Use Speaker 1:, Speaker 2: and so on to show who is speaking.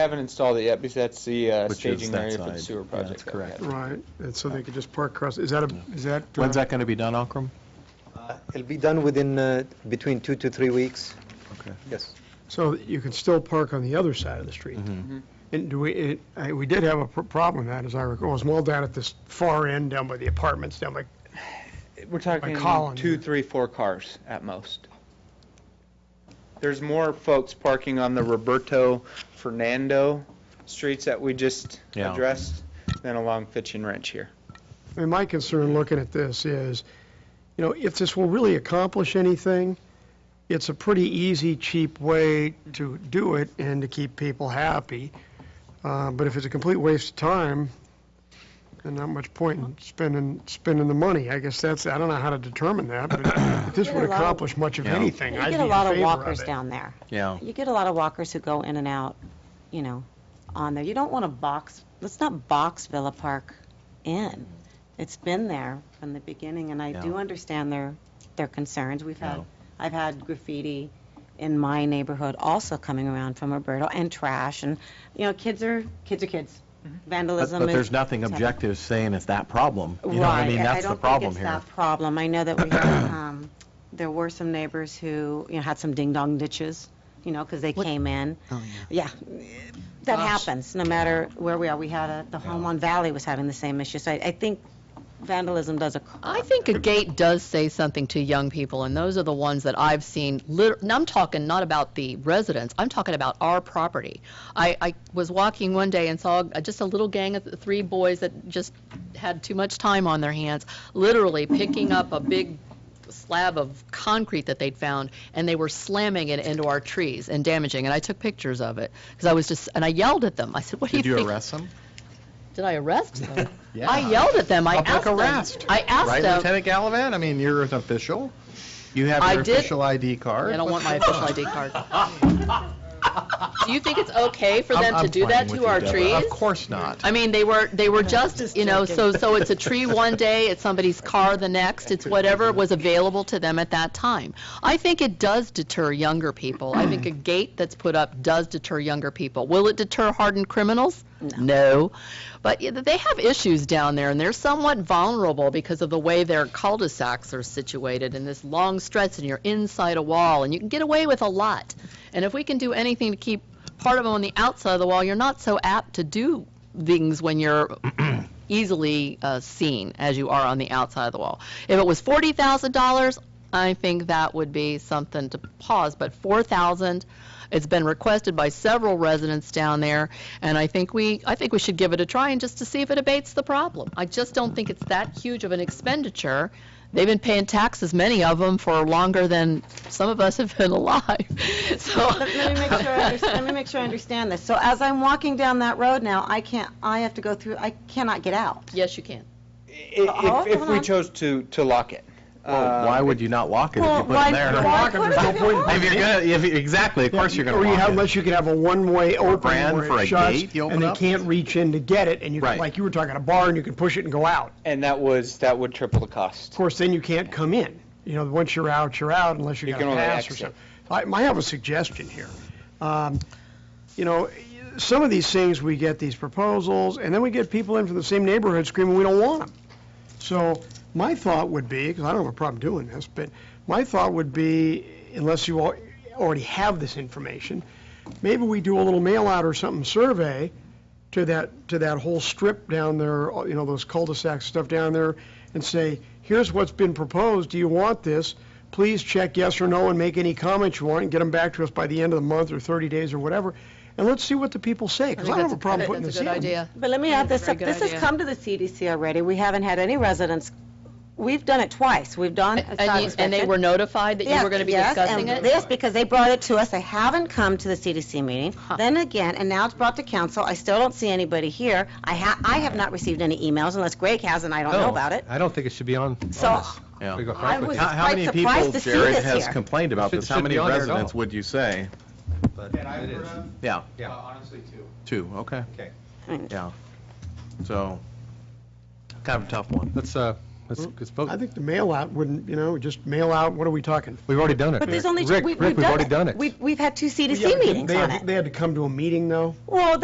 Speaker 1: haven't installed it yet because that's the uh,
Speaker 2: Which is
Speaker 1: staging
Speaker 2: that
Speaker 1: area for the
Speaker 2: side.
Speaker 1: sewer
Speaker 2: Yeah,
Speaker 1: project.
Speaker 2: that's correct.
Speaker 3: Right, and so they could just park across, is that a, is that? uh,
Speaker 2: When's that going to be done, Ankrum?
Speaker 4: Uh, It'll be done within, uh, between two to three weeks,
Speaker 2: Okay.
Speaker 4: yes.
Speaker 3: So that you can still park on the other side of the street?
Speaker 2: Mhm.
Speaker 1: Mhm.
Speaker 3: And do we, it- I- we did have a pr- problem with that, as I recall, it was more down at this far end, down by the apartments, down by,
Speaker 1: We're talking
Speaker 3: Colin
Speaker 1: two,
Speaker 3: here.
Speaker 1: three, four cars at most. There's more folks parking on the Roberto Fernando streets that we just
Speaker 2: Yeah.
Speaker 1: addressed than along Fitch and Wrench here.
Speaker 3: and my concern looking at this is, you know, if this will really accomplish anything, it's a pretty easy, cheap way to do it and to keep people happy. Uh, But if it's a complete waste of time, then not much point in spending, spending the money. I guess that's, I don't know how to determine that, but if this
Speaker 5: You get
Speaker 3: would
Speaker 5: a lot of-
Speaker 3: accomplish much of
Speaker 2: Yeah.
Speaker 3: anything,
Speaker 5: You
Speaker 3: I'd be
Speaker 5: get
Speaker 3: in
Speaker 5: a
Speaker 3: favor
Speaker 5: lot
Speaker 3: of
Speaker 5: of walkers
Speaker 3: it.
Speaker 5: down there.
Speaker 2: Yeah.
Speaker 5: You get a lot of walkers who go in and out, you know, on there. You don't want to box, let's not box Villa Park in. It's been there from the beginning, and I do
Speaker 2: Yeah.
Speaker 5: understand their, their concerns. We've
Speaker 2: Yeah.
Speaker 5: had, I've had graffiti in my neighborhood also coming around from Roberto, and trash, and, you know, kids are, kids are kids.
Speaker 2: But
Speaker 5: Vandalism is...
Speaker 2: Mm-hmm. but there's nothing
Speaker 5: it's happening.
Speaker 2: objective saying it's that problem. You know what I
Speaker 5: Right.
Speaker 2: mean? That's the problem
Speaker 5: I don't
Speaker 2: here.
Speaker 5: think it's that problem. I know that we, had, um, there were some neighbors who, you know, had some ding-dong ditches, you know, because they came in. Oh, yeah. That happens, no matter where we are. We had a, the home on Valley was having the same issue. So I, I think vandalism does occur.
Speaker 6: I think a gate does say something to young people, and those are the ones that I've seen. Lit- and I'm talking not about the residents. I'm talking about our property. I, I was walking one day and saw a- just a little gang of three boys that just had too much time on their hands, literally picking up a big slab of concrete that they'd found, and they were slamming it into our trees and damaging. And I took pictures of it because I was just, and I yelled at them. I said, "What do you
Speaker 2: Did
Speaker 6: think?"
Speaker 2: you arrest them?
Speaker 6: Did I arrest them?
Speaker 2: Yeah.
Speaker 6: I yelled at them. I
Speaker 2: Public
Speaker 6: asked them.
Speaker 2: arrest.
Speaker 6: I asked
Speaker 2: Right,
Speaker 6: them.
Speaker 2: Lieutenant Gallivan? I mean, you're an official. You have
Speaker 6: I
Speaker 2: your
Speaker 6: did-
Speaker 2: official ID card.
Speaker 6: I don't want my official ID card. Do you think it's okay for them to do that to our trees?
Speaker 2: Of course not.
Speaker 6: I mean, they were, they were just, you know, so, so it's a tree one day, it's somebody's car the next, it's whatever was available to them at that time. I think it does deter younger people. I think a gate that's put up does deter younger people. Will it deter hardened criminals? No. But yeah, they have issues down there, and they're somewhat vulnerable because of the way their cul-de-sacs are situated in this long stretch, and you're inside a wall, and you can get away with a lot. And if we can do anything to keep part of them on the outside of the wall, you're not so apt to do things when you're easily uh, seen as you are on the outside of the wall. If it was forty thousand dollars, I think that would be something to pause. But four thousand, it's been requested by several residents down there, and I think we, I think we should give it a try and just to see if it abates the problem. I just don't think it's that huge of an expenditure. They've been paying taxes, many of them, for longer than some of us have been alive. So
Speaker 5: Let let me make sure, I understand- let me make sure I understand this. So as I'm walking down that road now, I can't, I have to go through, I cannot get out.
Speaker 6: Yes, you can.
Speaker 1: I-
Speaker 5: Oh,
Speaker 1: If, if
Speaker 5: hold
Speaker 1: we
Speaker 5: on.
Speaker 1: chose to, to lock it. Uh,
Speaker 2: Well, Why would you not walk it if you put them there?
Speaker 5: why couldn't
Speaker 3: there's
Speaker 5: I
Speaker 3: no
Speaker 5: go
Speaker 3: point in
Speaker 5: out?
Speaker 2: If you're gonna, if, exactly, of course you're gonna
Speaker 3: Or you
Speaker 2: walk
Speaker 3: have-
Speaker 2: it.
Speaker 3: Unless you could have a one-way open
Speaker 2: brand
Speaker 3: where
Speaker 2: for a
Speaker 3: it shuts,
Speaker 2: gate you open
Speaker 3: and they
Speaker 2: up?
Speaker 3: can't reach in to get it, and you,
Speaker 2: Right.
Speaker 3: like you were talking, a bar, and you can push it and go out.
Speaker 1: And that was, that would triple the cost.
Speaker 3: Of course, then you can't come in. You know, once you're out, you're out unless you
Speaker 1: You
Speaker 3: got
Speaker 1: can
Speaker 3: a
Speaker 1: only
Speaker 3: pass or
Speaker 1: exit.
Speaker 3: something. I might have a suggestion here. Um, You know, some of these things, we get these proposals, and then we get people in from the same neighborhood screaming, we don't want them. So my thought would be, because I don't have a problem doing this, but my thought would be, unless you al- already have this information, maybe we do a little mail-out or something, survey, to that, to that whole strip down there, you know, those cul-de-sac stuff down there, and say, here's what's been proposed, do you want this? Please check yes or no and make any comments you want, and get them back to us by the end of the month or 30 days or whatever, and let's see what the people say, because I don't have a problem putting this in.
Speaker 6: That's a good idea.
Speaker 5: But let me add
Speaker 6: That's
Speaker 5: this
Speaker 6: a
Speaker 5: up.
Speaker 6: very
Speaker 5: This
Speaker 6: good
Speaker 5: has
Speaker 6: idea.
Speaker 5: come to the CDC already. We haven't had any residents, we've done it twice. We've done. a site
Speaker 6: And, you, and they
Speaker 5: inspection.
Speaker 6: were notified that you
Speaker 5: Yeah,
Speaker 6: were going to be
Speaker 5: yes,
Speaker 6: discussing
Speaker 5: and
Speaker 6: it?
Speaker 5: Yes, because they brought it to us. I haven't come to the CDC meeting. Then again, and now it's brought to council. I still don't see anybody here. I ha, I have not received any emails unless Greg has and I don't know about it.
Speaker 7: I don't think it should be on.
Speaker 5: So
Speaker 2: Yeah.
Speaker 7: We go
Speaker 5: I
Speaker 7: frank with
Speaker 5: was
Speaker 2: How, how
Speaker 5: quite
Speaker 2: many people,
Speaker 5: surprised to see
Speaker 2: Jared,
Speaker 5: this
Speaker 2: has
Speaker 5: here.
Speaker 2: complained about
Speaker 7: Should-
Speaker 2: this? How
Speaker 7: should
Speaker 2: many
Speaker 7: be on there at
Speaker 2: residents
Speaker 7: all.
Speaker 2: would you say?
Speaker 7: you, but it is.
Speaker 2: Yeah,
Speaker 7: Yeah.
Speaker 1: Honestly, too.
Speaker 2: two, okay.
Speaker 7: Okay.
Speaker 2: Yeah. So, kind of a tough one.
Speaker 7: Let's, uh, Let's,
Speaker 5: Hmm.
Speaker 7: let's vote.
Speaker 3: Hmm? I think the mail out wouldn't, you know, just mail out, what are we talking?
Speaker 7: We've already done it.
Speaker 5: But there's only, two-
Speaker 7: Rick,
Speaker 5: we- we've
Speaker 7: Rick,
Speaker 5: done
Speaker 7: we've already
Speaker 5: it.
Speaker 7: done it.
Speaker 5: We've, we've had two
Speaker 3: Yeah,
Speaker 5: CDC
Speaker 3: but
Speaker 5: meetings
Speaker 3: they
Speaker 5: on
Speaker 3: had-
Speaker 5: it.
Speaker 3: They had to come to a meeting though?
Speaker 5: Well,